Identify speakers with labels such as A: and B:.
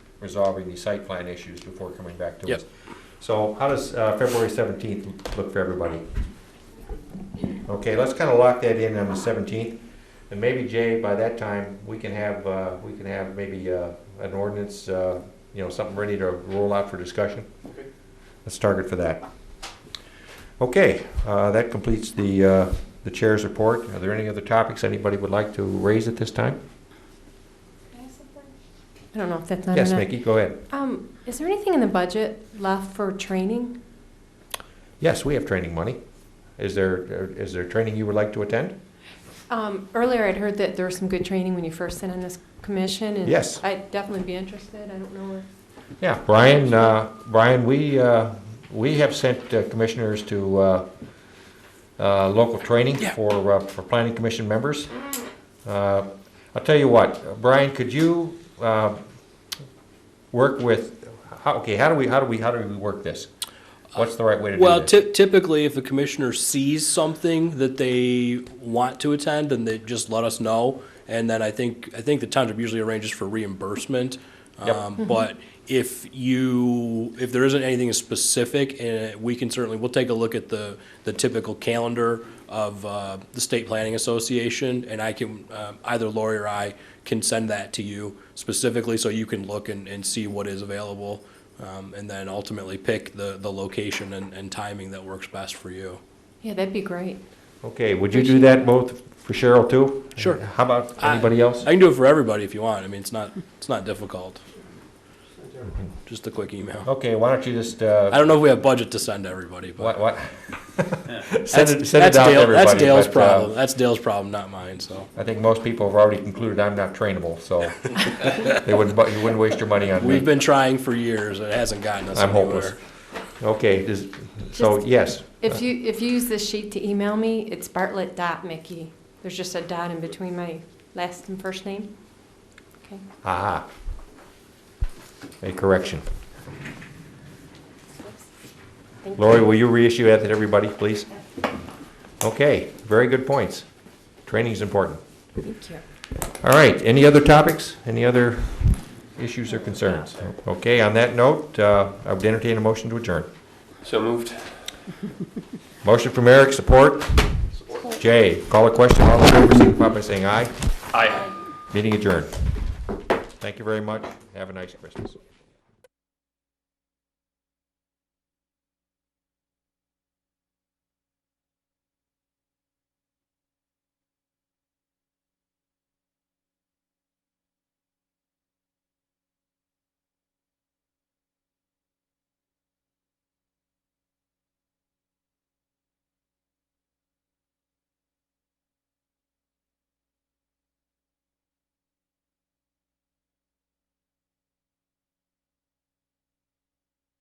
A: resolving these site plan issues before coming back to
B: Yep.
A: us. So how does uh, February 17th look for everybody? Okay, let's kind of lock that in on the 17th. And maybe Jay, by that time, we can have, uh, we can have maybe uh, an ordinance, uh, you know, something ready to roll out for discussion.
C: Okay.
A: Let's target for that. Okay, uh, that completes the, uh, the chair's report. Are there any other topics anybody would like to raise at this time?
D: I don't know if that's not
A: Yes,
D: enough.
A: Mickey, go ahead.
D: Um, is there anything in the budget left for training?
A: Yes, we have training money. Is there, is there training you would like to attend?
D: Um, earlier I'd heard that there was some good training when you first sent in this commission and
A: Yes.
D: I'd definitely be interested. I don't know if
A: Yeah, Brian, uh, Brian, we, uh, we have sent uh, commissioners to uh, uh, local training for, uh, for planning commission members. Uh, I'll tell you what, Brian, could you uh, work with, how- okay, how do we, how do we, how do we work this? What's the right way to do
B: Well,
A: this?
B: ty- typically, if a commissioner sees something that they want to attend, then they just let us know. And then I think, I think the township usually arranges for reimbursement.
A: Yep.
B: Um, But if you, if there isn't anything specific, eh, we can certainly, we'll take a look at the, the typical calendar of uh, the State Planning Association, and I can, um, either Lori or I can send that to you specifically, so you can look and, and see what is available um, and then ultimately pick the, the location and, and timing that works best for you.
D: yeah, that'd be great.
A: Okay, would you do that both for Cheryl too?
B: Sure.
A: How about
B: I-
A: anybody else?
B: I can do it for everybody if you want. I mean, it's not, it's not difficult. Just a quick email.
A: Okay, why don't you just, uh,
B: I don't know if we have budget to send everybody,
A: what,
B: but
A: what? Send
B: that's,
A: it, send it
B: that's
A: out to
B: Dale,
A: everybody.
B: that's Dale's
A: but, uh,
B: problem. That's Dale's problem, not mine, so.
A: I think most people have already concluded I'm not trainable, so they wouldn't, bu- you wouldn't waste your money on
B: We've
A: me.
B: been trying for years. It hasn't gotten us
A: I'm hopeless.
B: anywhere.
A: Okay, is- so
D: Just-
A: yes,
D: If you, if you use this sheet to email me, it's bartlett dot mickey. There's just a dot in between my last and first name. Okay.
A: aha. A correction.
D: Thank you.
A: Lori, will you reissue that to everybody, please? Okay, very good points. Training's important.
D: Thank you.
A: All right, any other topics? Any other issues or concerns? Okay, on that note, uh, I would entertain a motion to adjourn.
C: So moved.
A: Motion from Eric, support. Jay, call a question, all in favor, signify by saying aye.
C: Aye.
A: Meeting adjourned. Thank you very much. Have a nice Christmas.